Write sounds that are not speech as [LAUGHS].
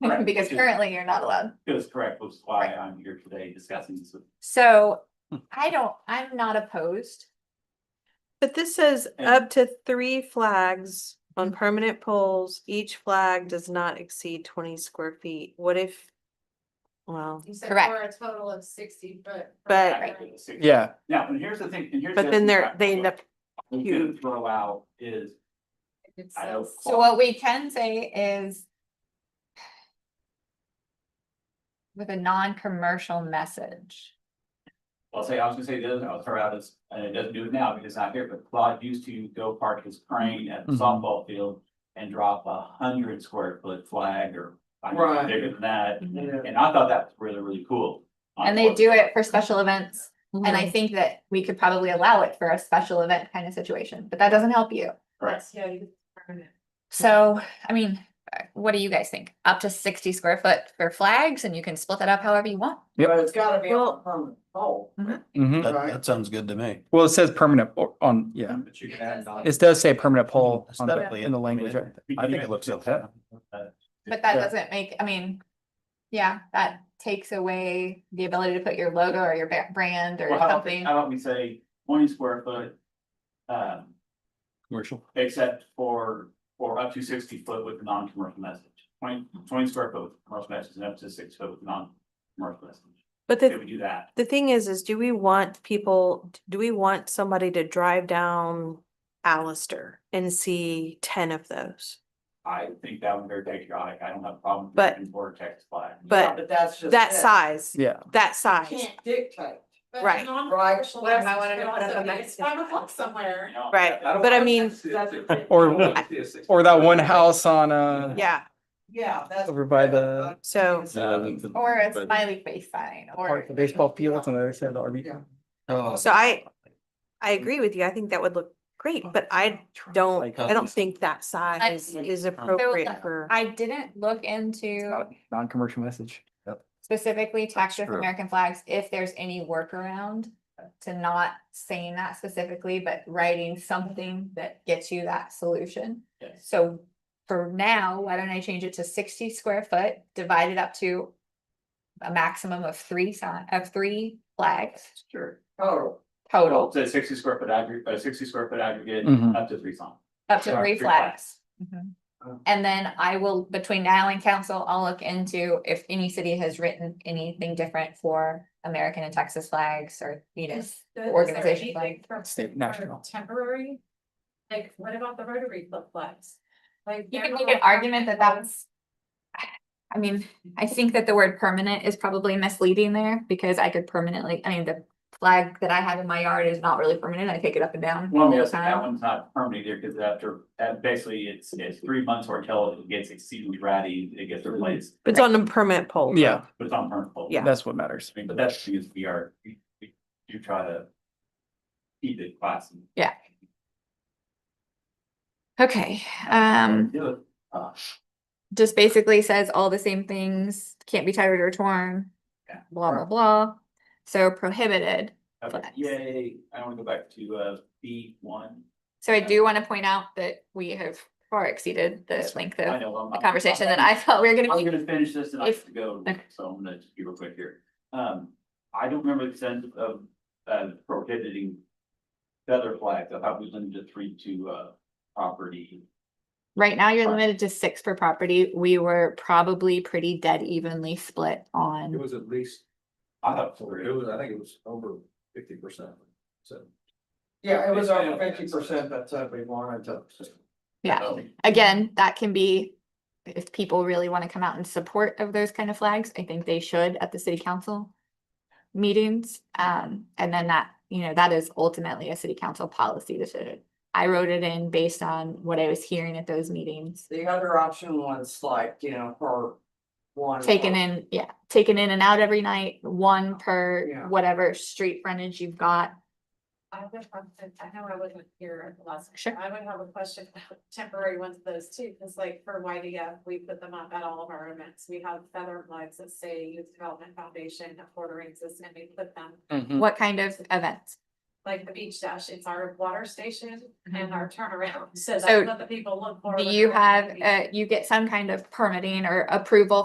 Correct. because currently you're not allowed. That is correct, which is why I'm here today discussing this. with- Hmm. So I don't, I'm not opposed. But this says And- up to three flags Mm-hmm. on permanent poles, each flag does not exceed twenty square feet. What if? Well, You said Correct. for a total of sixty, but. But- I agree with the six. Yeah, Now, and here's the thing, and here's. the but other then thing they're, about they end what up, I'm gonna Throw out is, It's I don't. So what we can say is with a non-commercial message. I'll say, I was gonna say the other, I'll throw out is, and it doesn't do it now because it's not here, but Claude used to go park his crane at the Mm-hmm. Mhm. softball field. And drop a hundred square foot flag or, I Right. don't know, bigger than that, Yeah. and I thought that was really, really cool. And they do it for special events. And Mm-hmm. I think that we could probably allow it for a special event kind of situation, but that doesn't help you. Correct. Yeah, you earn it. So, I mean, uh, what do you guys think? Up to sixty square foot for flags and you can split that up however you want. Yep. But it's gotta be Well- on permanent pole. mhm. That, Right. that sounds good to me. Well, it says permanent o- on, yeah, But you can add. on- it does say permanent pole on the- Aesthetically, in the I mean, language. right? I think it looks okay. But that Yeah. doesn't make, I mean, yeah, that takes away the ability to put your logo or your ba- brand or Well, how about, something. how about we say twenty square foot? Um, Commercial. except for, or up to sixty foot with a non-commercial message. 20 20 square foot with commercial message and up to six foot with non-commercial message. but If the, we do that, the thing is, is do we want people, do we want somebody to drive down Allister and see ten of those? I think that would be very patriotic. I don't have a problem. with But- the Border Texas flag. Yeah, But But that's just. that it. size, Yeah, that You size, Can't dictate, But Right. non- right? What if I wanted to to put put up a It's Mexican five o'clock somewhere. You know, right, I don't- but I mean, or, or that one house on, uh, yeah, Yeah, that's. over by the so. Or a smiley face sign or. park, the baseball fields on the other side of the RV. So I, I agree with you. I think that would look great, but I don't, I don't think that size is appropriate for. I didn't look Oh. into Non-commercial message. specifically tax with true. American flags, if there's any workaround to not saying that specifically, but writing something that gets you that solution. Yes. So for now, why don't I change it to sixty square foot, divided up to a maximum of three sign, of three flags Sure. Total. total, So sixty square foot aggregate, uh, sixty square foot aggregate, Mhm. up to three songs. up to Sorry, three three flags. Oh. flags. Mhm. And then I will, between now and council, I'll look into if any city has written anything different for American and Texas flags or Venus. Organization flag. State national. Temporary, like, what about the Rotary Club flags? Like. You they're can not make an on argument that permanent poles. that's. I mean, I think that the word permanent is probably misleading there because I could permanently, I mean, the flag that I have in my yard is not really permanent. I take it up and down. Well, all the yes, that time. one's not permanent either, because after, uh, basically, it's, it's three months or until it gets exceedingly ratty, it gets Mm-hmm. replaced, It's on a permanent pole. Yeah, but it's on permanent. hold. Yeah. that's what matters. I mean, but that's because we are, we, we do try to. Keep it classy. Okay, um, Do it. just basically says all the same things, can't be tattered or torn. Yeah. Blah, blah, blah. So prohibited. Okay, Flex. Yay, I wanna go back to, uh, B one. So I do want to point out that we have far exceeded the length I of know, I'm- the I'm- conversation that I thought we were gonna I'm be. gonna finish this and I If- have to go, okay. so I'm gonna just be real quick here. Um, I don't remember the sense of, uh, prohibiting feather flags. I thought we limited to three to, uh, property. Right now, you're Right. limited to six per property. We were probably pretty dead evenly split It on, was at least, I thought it three. was, I think it was over fifty percent, so. Yeah, it was over fifty percent, that's what we wanted to. yeah. um, Again, that can be, if people really want to come out in support of those kind of flags, I think they should at the city council meetings. Um, and then that, you know, that is ultimately a city council policy decision. I wrote it in based on what I was hearing at those meetings. The other option was like, you know, for one. Taken in, yeah, taken in and out every night, one per Yeah. whatever street frontage you've got. I would have, to- I know I wasn't here at the last. meeting. Sure. I would have a question about [LAUGHS] temporary ones of those too, because like for YDF, we put them up at all of our events. We have feather flags that say Youth Development Foundation, Affordable System, and we put them Mm. What kind of events? like the beach dash. It's our water station and Mhm. our turnaround. So So that's what the people look for. Do when you they're walking have, the beach. uh, you get some kind of permitting or approval